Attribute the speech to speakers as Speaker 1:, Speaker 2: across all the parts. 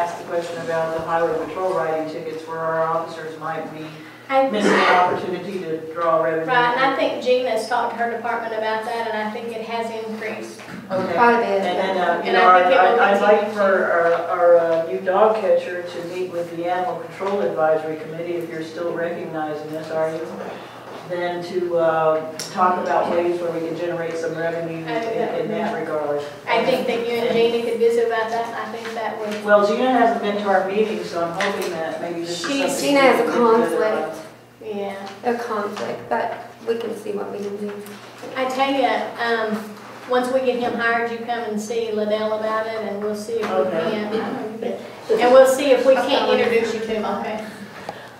Speaker 1: about the highway patrol writing tickets where our officers might be
Speaker 2: I-
Speaker 1: missing an opportunity to draw revenue.
Speaker 2: Right, and I think Gina's talked to her department about that, and I think it has increased.
Speaker 1: Okay.
Speaker 3: Part of it
Speaker 1: And
Speaker 3: is
Speaker 1: then, uh, you
Speaker 2: And I
Speaker 1: know, our-
Speaker 2: think it will
Speaker 1: I- I'd like
Speaker 2: continue
Speaker 1: for
Speaker 2: to-
Speaker 1: our, our uh, new dog catcher to meet with the Animal Control Advisory Committee, if you're still recognizing this, are you? Then to uh, talk about ways where we can generate some revenue in
Speaker 2: I think that
Speaker 1: in
Speaker 2: would be-
Speaker 1: that regard.
Speaker 2: I think that you and Gina could visit about that, and I think that would,
Speaker 1: Well, Gina hasn't been to our meeting, so I'm hoping that maybe this is
Speaker 2: She-
Speaker 1: something.
Speaker 3: Gina has
Speaker 1: we
Speaker 3: a
Speaker 1: can uh, consider.
Speaker 3: conflict,
Speaker 2: yeah.
Speaker 3: a conflict, but we can see what we can do.
Speaker 2: I tell you, um, once we get him hired, you come and see Liddell about it, and we'll see if we
Speaker 1: Okay.
Speaker 2: can. And we'll see if we can't introduce you to him, okay?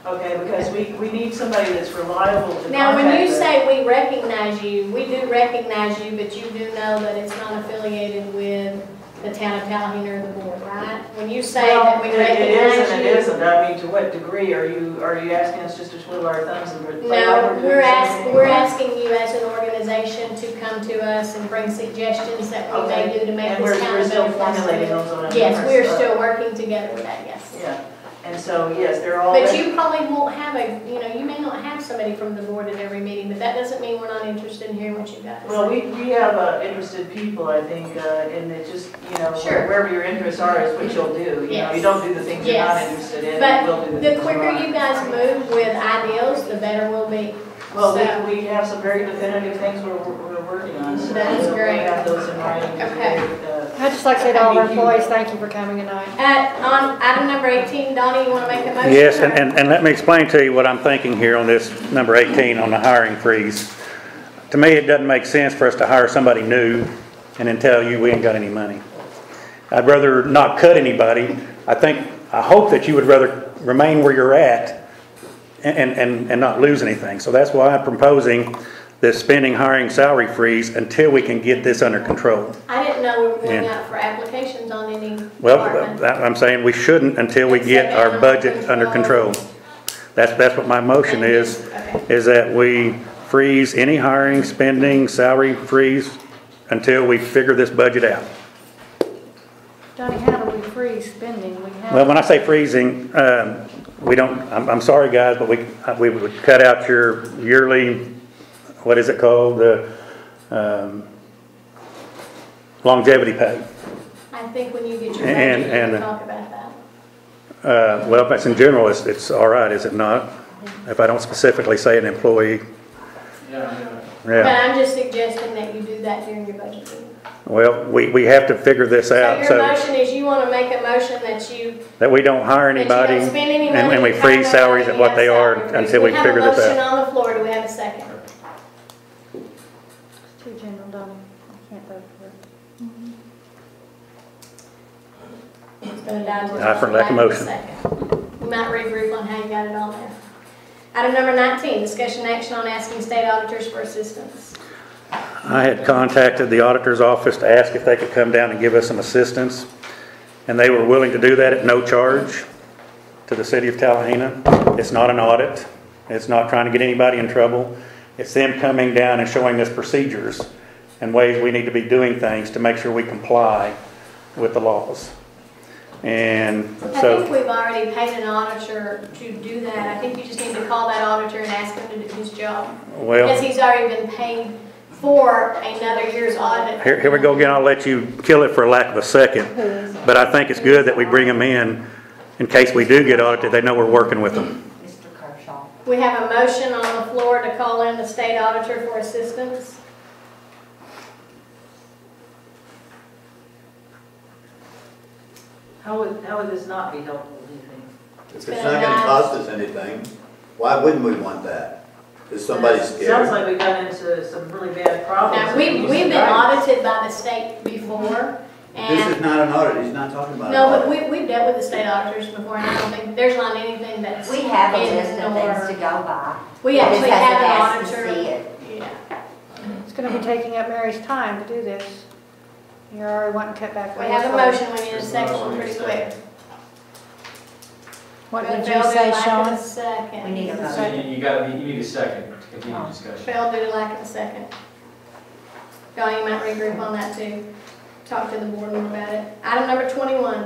Speaker 1: Okay, because we, we need somebody that's reliable to contact.
Speaker 2: Now, when you
Speaker 1: us.
Speaker 2: say we recognize you, we do recognize you, but you do know that it's not affiliated with the town of Tallahassee or the board, right? When you say that we
Speaker 1: Well, it- It is and it
Speaker 2: recognize you.
Speaker 1: isn't, I mean, to what degree are you, are you asking us just to twiddle our thumbs and? we're- like
Speaker 2: No,
Speaker 1: doing
Speaker 2: we're asking,
Speaker 1: something?
Speaker 2: we're asking you as an organization to come to us and bring suggestions that we may do to make
Speaker 1: And
Speaker 2: this
Speaker 1: we're,
Speaker 2: town
Speaker 1: we're
Speaker 2: a
Speaker 1: still
Speaker 2: better place to
Speaker 1: formulating
Speaker 2: live.
Speaker 1: those on a.
Speaker 2: Yes, we are
Speaker 1: numerous, uh,
Speaker 2: still working together with that, yes.
Speaker 1: Yeah, and so, yes, they're all.
Speaker 2: But you probably won't have a, you know, you may not have somebody from the board at every meeting, but that doesn't mean we're not interested in hearing what you guys.
Speaker 1: Well, we, we have uh, interested people, I think, uh, and it just, you know,
Speaker 2: Sure.
Speaker 1: wherever your interests are is what you'll do. You know, you
Speaker 2: Yes.
Speaker 1: don't do the things you're not
Speaker 2: Yes.
Speaker 1: interested in,
Speaker 2: But
Speaker 1: you will do the things
Speaker 2: The
Speaker 1: you
Speaker 2: quicker
Speaker 1: are.
Speaker 2: you guys move with ideals, the better we'll be.
Speaker 1: Well, we, we have some very definitive things we're, we're working on, so.
Speaker 2: That is
Speaker 1: we'll-
Speaker 2: great.
Speaker 1: We'll have those in mind.
Speaker 2: Okay.
Speaker 1: Uh,
Speaker 4: I'd just like to say to all our employees, thank you for coming tonight.
Speaker 2: At, on item number eighteen, Donnie, you wanna make a motion?
Speaker 5: Yes, and, and, and let me explain to you what I'm thinking here on this number 18 on the hiring freeze. To me, it doesn't make sense for us to hire somebody new and then tell you we ain't got any money. I'd rather not cut anybody. I think, I hope that you would rather remain where you're at and, and, and not lose anything. So that's why I'm proposing this spending, hiring, salary freeze until we can get this under control.
Speaker 2: I didn't know we were going
Speaker 5: Yeah.
Speaker 2: out for applications on any department.
Speaker 5: Well, uh, that- I'm saying we shouldn't until we get our budget under control. That's, that's what my motion is,
Speaker 2: Okay.
Speaker 5: is that we freeze any hiring, spending, salary freeze until we figure this budget out.
Speaker 4: Donnie, how do we freeze spending? We have.
Speaker 5: Well, when I say freezing, um, we don't, I'm, I'm sorry, guys, but we, uh, we would cut out your yearly, what is it called, the um, longevity pay.
Speaker 2: I think when you get your
Speaker 5: And-
Speaker 2: budget, we'll
Speaker 5: and-
Speaker 2: talk about that.
Speaker 5: Uh, Well, if it's in general, it's, it's all right, is it not? If I don't specifically say an employee,
Speaker 2: But
Speaker 5: yeah.
Speaker 2: I'm just suggesting that you do that during your budget meeting.
Speaker 5: Well, we, we have to figure this
Speaker 2: So
Speaker 5: out,
Speaker 2: your
Speaker 5: so
Speaker 2: motion is you wanna make a motion that you,
Speaker 5: that we don't hire
Speaker 2: that you
Speaker 5: anybody.
Speaker 2: don't spend any money.
Speaker 5: and- And we
Speaker 2: you
Speaker 5: freeze
Speaker 2: hire
Speaker 5: salaries at
Speaker 2: nobody,
Speaker 5: what they
Speaker 2: you have
Speaker 5: are
Speaker 2: salary freeze.
Speaker 5: until we figure this
Speaker 2: We have a
Speaker 5: out.
Speaker 2: motion on the floor, do we have a second?
Speaker 4: It's too general, Donnie. I can't vote for it.
Speaker 5: I for lack of motion.
Speaker 2: We might regroup on how you got it all there. Item number 19, discussion action on asking state auditors for assistance.
Speaker 5: I had contacted the auditor's office to ask if they could come down and give us some assistance, and they were willing to do that at no charge to the city of Tallahassee. It's not an audit, it's not trying to get anybody in trouble, it's them coming down and showing us procedures and ways we need to be doing things to make sure we comply with the laws. And
Speaker 2: I think
Speaker 5: so,
Speaker 2: we've already paid an auditor to do that. I think you just need to call that auditor and ask him to do his job. Because
Speaker 5: well,
Speaker 2: he's already been paid for another year's audit.
Speaker 5: here, here we go again, I'll let you kill it for lack of a second, but I think it's good that we bring them in in case we do get audited, they know we're working with them.
Speaker 6: Mr. Kershaw.
Speaker 2: We have a motion on the floor to call in the state auditor for assistance.
Speaker 1: How would, how would this not be helpful, do you think?
Speaker 7: If it's not gonna cost us anything, why wouldn't we want that? Is somebody
Speaker 1: Sounds
Speaker 7: scared?
Speaker 1: like we got into some really bad problems.
Speaker 2: Now, we, we've been audited by the state before, and.
Speaker 7: This is not an audit, he's not talking about an
Speaker 2: No, but
Speaker 7: audit.
Speaker 2: we, we've dealt with the state auditors before, and I don't think, there's not anything that's.
Speaker 6: We have a
Speaker 2: in
Speaker 6: list of things to
Speaker 2: our-
Speaker 6: go by.
Speaker 2: We actually
Speaker 6: Just
Speaker 2: have an
Speaker 6: asked to see
Speaker 2: auditor.
Speaker 6: it.
Speaker 2: Yeah.
Speaker 4: It's gonna be taking up Mary's time to do this. You're already wanting to cut back.
Speaker 2: We have a motion, we need a second pretty quick.
Speaker 4: What
Speaker 2: Bill
Speaker 4: did you say,
Speaker 2: Dooley, lack of a
Speaker 4: Sean?
Speaker 2: Second.
Speaker 6: We need a
Speaker 8: You-
Speaker 6: motion.
Speaker 8: You gotta, be- you need a second to continue the discussion.
Speaker 2: Bill did lack of a second. Dawn, you might regroup on that too. Talk to the board member about it. Item number twenty-one,